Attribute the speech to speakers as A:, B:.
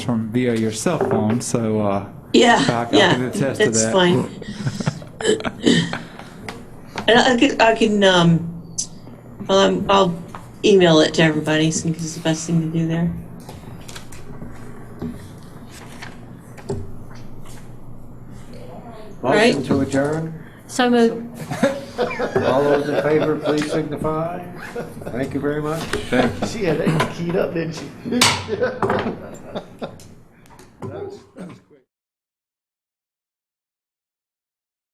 A: from via your cell phone, so uh, I
B: Yeah,
A: can
B: yeah,
A: attest to
B: that's
A: that.
B: fine. And I can, I can, um, well, I'm, I'll email it to everybody, so it's the best thing to do there. Right.
C: Motion to adjourn.
D: So moved.
C: All those in favor, please signify. Thank you very much.
E: She had that keyed up, didn't she?